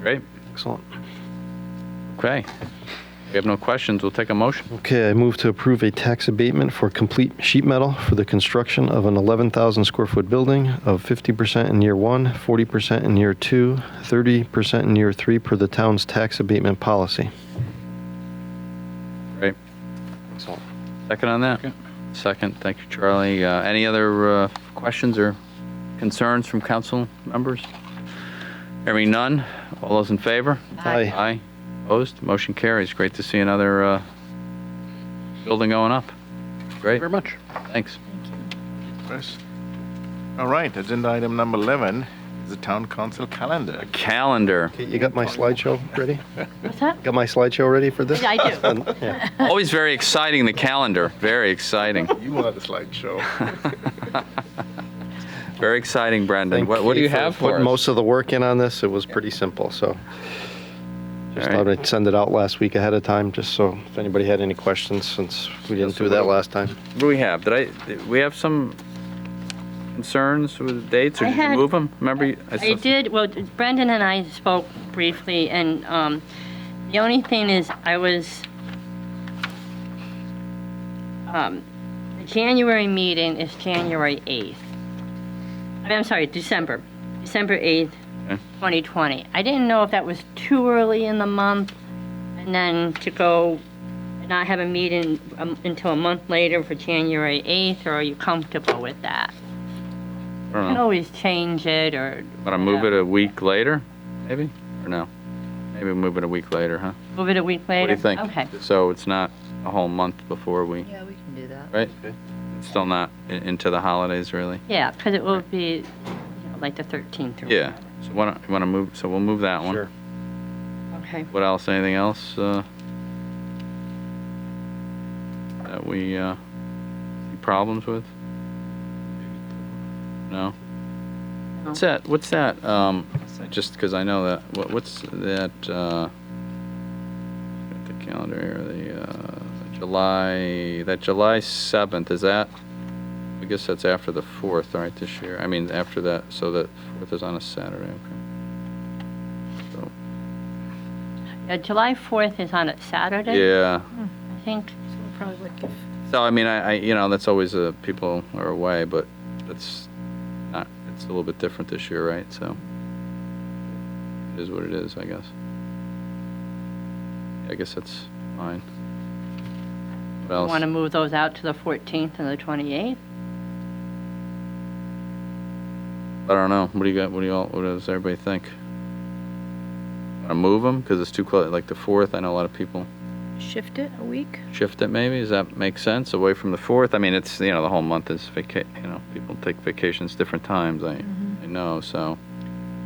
Great. Excellent. Okay. We have no questions. We'll take a motion. Okay, I move to approve a tax abatement for complete sheet metal for the construction of an 11,000 square foot building of 50% in year one, 40% in year two, 30% in year three per the town's tax abatement policy. Great. Excellent. Second on that? Second. Thank you, Charlie. Uh, Any other uh, questions or concerns from council members? Hearing none. All those in favor? Aye. Aye. Opposed? Motion carries. Great to see another uh, building going up. Great. Very much. Thanks. Chris. All right, agenda item number 11 is the town council calendar. Calendar. Okay, You got my slideshow ready? What's that? Got my slideshow ready for this? Yeah, I do. Yeah. Always very exciting, the calendar. Very exciting. You wanted a slideshow. Very exciting, Brendan. Thank What what do you for have for putting us? most of the work in on this. It was pretty simple, so. Just All right. thought I'd send it out last week ahead of time, just so if anybody had any questions, since we didn't do that last time. What do we have? Did I, did we have some concerns with the dates, or I did you had- move them? Remember? you- saw I some- did, well, Brendan and I spoke briefly, and um, the only thing is, I was, um, the January meeting is January 8th. I mean, I'm sorry, December, December 8th, Okay. 2020. I didn't know if that was too early in the month, and then to go and not have a meeting um, until a month later for January 8th, or are you comfortable with that? I You don't can know. always change it, or Want to move it a week later, maybe? Or no? Maybe move it a week later, huh? Move it a week What do later? you think? Okay. So it's not a whole month before we, Yeah, we can do that. right? It's still not i- into the holidays, really? Yeah, because it will be you know, like the 13th. or- Yeah. So why don't, you want to move, so we'll move that one. Sure. Okay. What else, anything else? uh, That we, uh, any problems with? No? What's that, what's that, um, just because I know that, what- what's that, uh, got the calendar here, the, uh, July, that July 7th, is that, I guess that's after the 4th, right, this year? I mean, after that, so that 4th is on a Saturday, okay. Yeah, July 4th is on a Saturday, Yeah. I think. So we'll probably look if, So I mean, I, I you know that's always uh, people are away, but that's not it's a little bit different this year, right? So it is what it is, I guess. I guess that's fine. What else? Want to move those out to the 14th and the 28th? I don't know. What do you got? What do you all? What does everybody think? Want to move them because it's too close? Like the fourth, I know a lot of people shift it a week? shift it. Maybe does that make sense? Away from the fourth. I mean, it's you know the whole month is vaca. You know, people take vacations different times. I Mm-hmm. I know so. I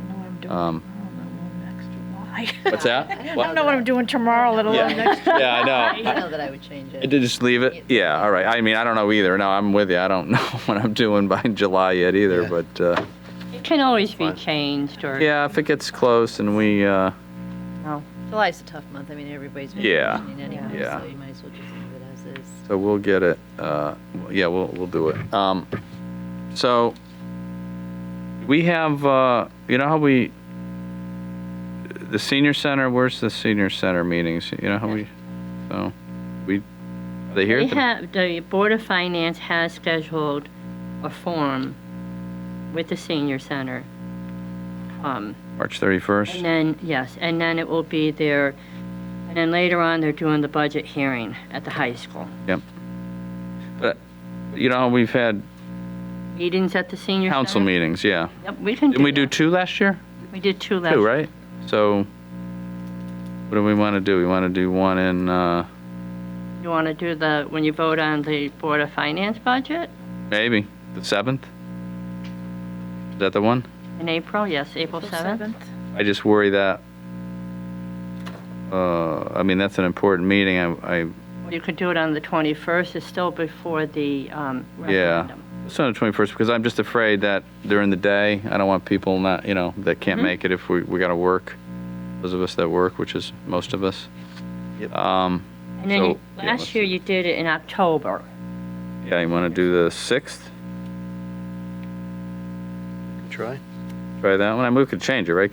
know what I'm doing Um, tomorrow, let alone next July. What's that? I don't know what I'm doing tomorrow, let Yeah. alone next. Yeah, I know. I know that I would change I it. did just leave it. Yeah, all right. I mean, I don't know either. No, I'm with you. I don't know what I'm doing by July yet either. Yeah. But uh, It can always be Fine. changed or, yeah, if it gets close and we, uh, July's a tough month, I mean, everybody's Yeah. vacationing anyway, Yeah. so you might as well just leave it as is. so we'll get it. Uh, yeah, we'll we'll do it. Um, so we have. Uh, you know how we. The senior center. Where's the senior center meetings? You know how we. So we. Are they here? they at the- have, the Board of Finance has scheduled a forum with the senior center. Um, March 31st. And then, yes, and then it will be their, and then later on, they're doing the budget hearing at the high school. But you know we've had Meetings at the senior center. council meetings. Yeah. Yep, we can do Didn't we do that. two last year? We did two last. Two, right? So what do we want to do? We want to do one in, uh, You want to do the, when you vote on the Board of Finance budget maybe the 7th? Is that the one? in April? Yes, April 7th. I just worry that, uh, I mean, that's an important meeting. I, I, Or You could do it on the 21st, it's still before the um, Yeah. referendum. it's on the 21st because I'm just afraid that during the day, I don't want people not, you know, that can't Mhm. make it if we, we got to work. Those of us that work, which is most of us. Yep. Um, And then you- So, yeah, last let's- year, you did it in October. yeah, you want to do the 6th? Try. Try that one. I mean, we could change it, right?